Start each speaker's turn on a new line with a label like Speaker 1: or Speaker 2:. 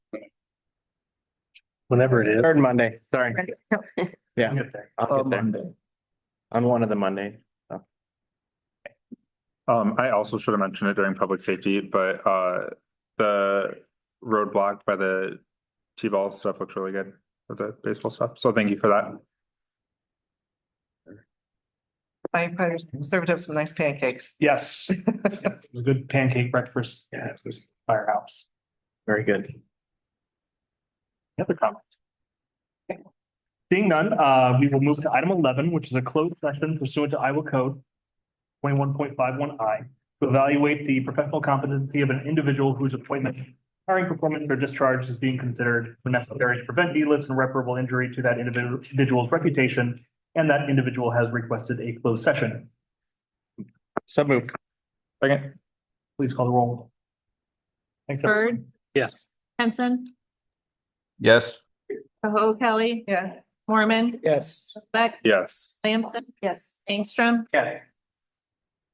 Speaker 1: whenever it is.
Speaker 2: Third Monday, sorry. Yeah,
Speaker 1: I'll
Speaker 2: I'll
Speaker 1: get
Speaker 2: get
Speaker 1: there.
Speaker 2: there. On one of the Mondays.
Speaker 3: Um, I also should have mentioned it during public safety, but uh, the roadblock by the T-ball stuff looks really good. with The baseball stuff, so thank you for that.
Speaker 4: firefighters served up some nice pancakes.
Speaker 5: Yes. Yes, it was A good pancake breakfast. Yeah, it was firehouse.
Speaker 2: Very good.
Speaker 5: Any other comments? Seeing none, uh, we will move to item eleven, which is a closed session pursuant to Iowa Code twenty-one point five one I to evaluate the professional competency of an individual whose appointment, hiring, performance, or discharge is being considered when necessary to prevent needless and irreparable injury to that individual- individual's reputation, and that individual has requested a closed session.
Speaker 2: So moved.
Speaker 3: Second,
Speaker 5: Please call the roll. Thanks. everyone.
Speaker 6: Bird,
Speaker 1: Yes.
Speaker 6: Henson,
Speaker 7: Yes.
Speaker 6: Koho Kelly,
Speaker 4: Yeah.
Speaker 6: Mormon,
Speaker 2: Yes.
Speaker 6: Beck,
Speaker 3: yes.
Speaker 6: Lamson,
Speaker 4: Yes.
Speaker 6: Angstrom,
Speaker 5: Okay.